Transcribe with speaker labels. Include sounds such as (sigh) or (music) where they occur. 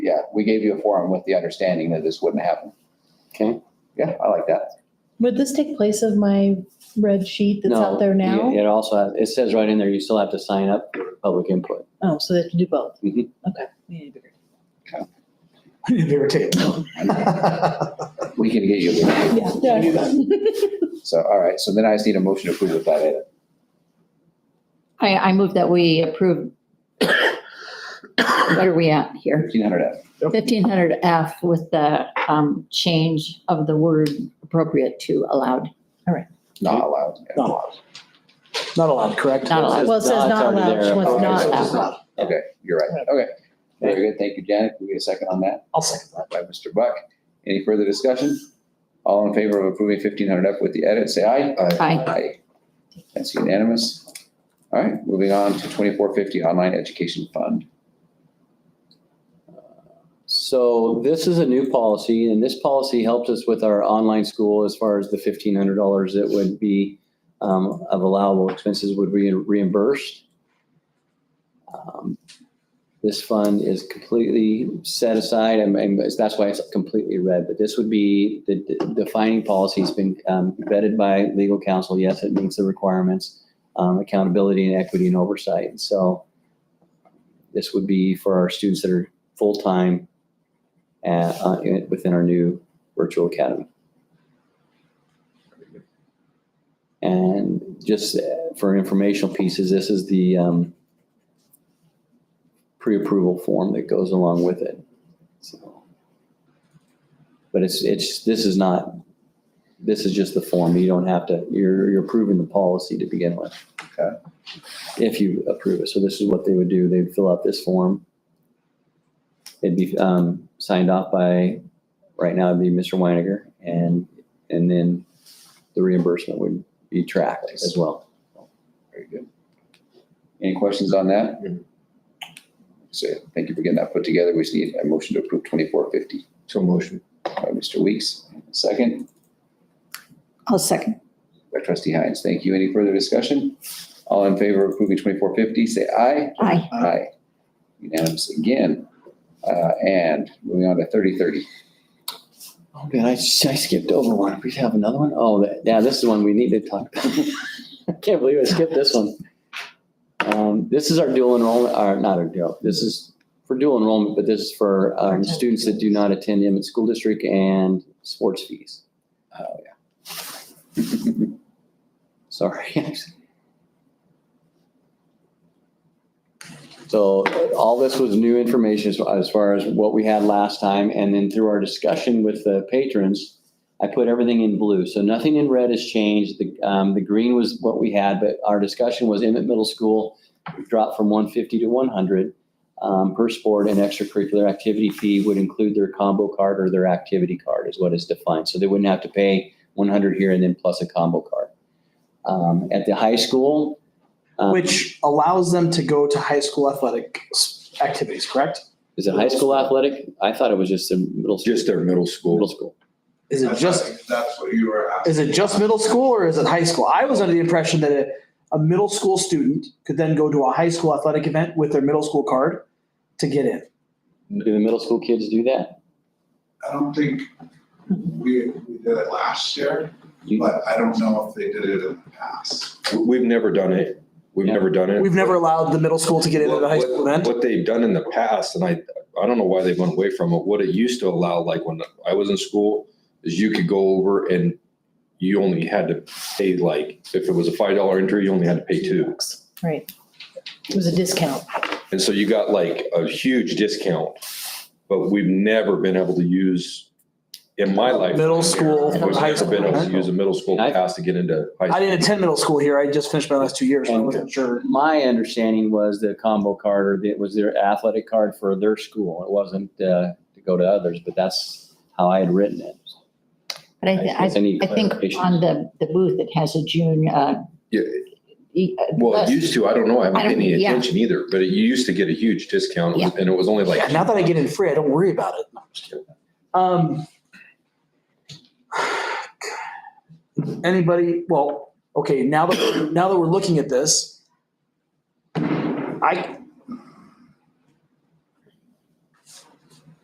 Speaker 1: yeah, we gave you a forum with the understanding that this wouldn't happen.
Speaker 2: Okay.
Speaker 1: Yeah, I like that.
Speaker 3: Would this take place of my red sheet that's out
Speaker 2: No,
Speaker 3: there now?
Speaker 2: you- It also, it says right in there, you still have to sign up for public input.
Speaker 3: Oh, so they have to do both?
Speaker 2: Mhm.
Speaker 3: Okay. We need to figure it
Speaker 4: I need a bigger tape.
Speaker 1: We can get you.
Speaker 3: out.
Speaker 1: a-
Speaker 3: Yeah.
Speaker 4: do
Speaker 1: So, all right, so then I just need a motion to approve with that edit.
Speaker 5: I, I move that we approve. What are we at here?
Speaker 1: Fifteen hundred F.
Speaker 5: Fifteen hundred F with the, um, change of the word appropriate to allowed.
Speaker 1: not allowed. yeah.
Speaker 4: Not allowed. Not allowed, correct?
Speaker 5: Not allowed.
Speaker 3: Well, it says
Speaker 2: It's
Speaker 3: not
Speaker 2: already
Speaker 3: allowed,
Speaker 2: there.
Speaker 3: what's
Speaker 1: Okay,
Speaker 3: not
Speaker 1: so
Speaker 3: allowed.
Speaker 1: it's not- Okay, you're right. Okay. Very good. Thank you, Janet. Can we get a second on that?
Speaker 4: I'll second that.
Speaker 1: By Mr. Buck. Any further discussion? All in favor of approving fifteen hundred F with the edit, say aye.
Speaker 5: Aye.
Speaker 1: Aye. That's unanimous. All right, moving on to twenty-four fifty online education fund.
Speaker 2: So this is a new policy and this policy helped us with our online school as far as the fifteen hundred dollars that would be um, of allowable expenses would be reimbursed. Um, This fund is completely set aside and, and that's why it's completely red, but this would be the the defining policy has been um, vetted by legal counsel. Yes, it meets the requirements, um, accountability and equity and oversight. So this would be for our students that are full-time at, uh, in- within our new virtual academy. And just uh, for informational pieces, this is the um, pre-approval form that goes along with it. So, But it's, it's, this is not, this is just the form. You don't have to, you're, you're approving the policy to begin with.
Speaker 1: Okay.
Speaker 2: If you approve it. So this is what they would do. They'd fill out this form. It'd be um, signed off by, right now it'd be Mr. Weiniger, and, and then the reimbursement would be tracked as well.
Speaker 1: Very good. Any questions on that? So thank you for getting that put together. We just need a motion to approve twenty-four fifty.
Speaker 4: So motion.
Speaker 1: By Mr. Weeks, second.
Speaker 5: I'll second.
Speaker 1: By trustee Hines, thank you. Any further discussion? All in favor of approving twenty-four fifty, say aye.
Speaker 5: Aye.
Speaker 1: Aye. Unanimous again. Uh, and moving on to thirty thirty.
Speaker 2: Oh, man, I, I skipped over one. We have another one? Oh, that- yeah, this is one we need to talk about. (laughs) I can't believe I skipped this one. Um, This is our dual enrollment, or not our dual, this is for dual enrollment, but this is for um, students that do not attend Emmett School District and sports fees.
Speaker 1: Oh,
Speaker 2: (laughs) Sorry. (laughs) So all this was new information as- as far as what we had last time. And then through our discussion with the patrons, I put everything in blue. So nothing in red has changed. The, um, the green was what we had, but our discussion was Emmett Middle School dropped from one fifty to one hundred, um, per sport and extracurricular activity fee would include their combo card or their activity card is what is defined. So they wouldn't have to pay one hundred here and then plus a combo card. Um, at the high school. um,
Speaker 4: Which allows them to go to high school athletic s- activities, correct?
Speaker 2: Is it high school athletic? I thought it was just in middle. school.
Speaker 6: Just their middle
Speaker 2: Middle
Speaker 6: school.
Speaker 2: school.
Speaker 4: Is it
Speaker 7: That's- I
Speaker 4: just,
Speaker 7: think That's what you were asking.
Speaker 4: is it just middle school or is it high school? I was under the impression that a, a middle school student could then go to a high school athletic event with their middle school card to get in.
Speaker 2: Do the middle school kids do that?
Speaker 7: I don't think we, we did it last year,
Speaker 2: You-
Speaker 7: but I don't know if they did it in the past.
Speaker 6: We- We've never done it. We've
Speaker 2: Yeah.
Speaker 6: never done it.
Speaker 4: We've never allowed the middle school to get into the high
Speaker 6: What-
Speaker 4: school
Speaker 6: what-
Speaker 4: event.
Speaker 6: What they've done in the past, and I, I don't know why they went away from it, what it used to allow, like when I was in school, is you could go over and you only had to pay like, if it was a five dollar entry, you only had to pay two.
Speaker 3: Right. It was a discount.
Speaker 6: And so you got like a huge discount, but we've never been able to use, in my life.
Speaker 4: Middle school,
Speaker 6: We've
Speaker 4: high
Speaker 6: never been able to
Speaker 4: school.
Speaker 6: use a middle school
Speaker 2: I-
Speaker 6: pass to get into high school.
Speaker 4: I didn't attend middle school here. I just finished my last two years. so I
Speaker 2: And-
Speaker 4: wasn't sure.
Speaker 2: My understanding was the combo card or it was their athletic card for their school. It wasn't uh, to go to others, but that's how I had written it.
Speaker 5: But I, thi- I,
Speaker 2: guess need
Speaker 5: I think
Speaker 2: clarification.
Speaker 5: on the, the booth, it has a June, uh,
Speaker 6: Yeah.
Speaker 5: e- uh,
Speaker 6: Well, it
Speaker 5: list.
Speaker 6: used to, I don't know, I haven't
Speaker 5: I
Speaker 6: paid
Speaker 5: don't-
Speaker 6: any
Speaker 5: yeah.
Speaker 6: attention either, but it you used to get a huge discount
Speaker 5: Yeah.
Speaker 6: and it was only like.
Speaker 4: Yeah, now that I get in free, I don't worry about it. No, I'm just kidding. Um, anybody? Well, okay. Now that now that we're looking at this, I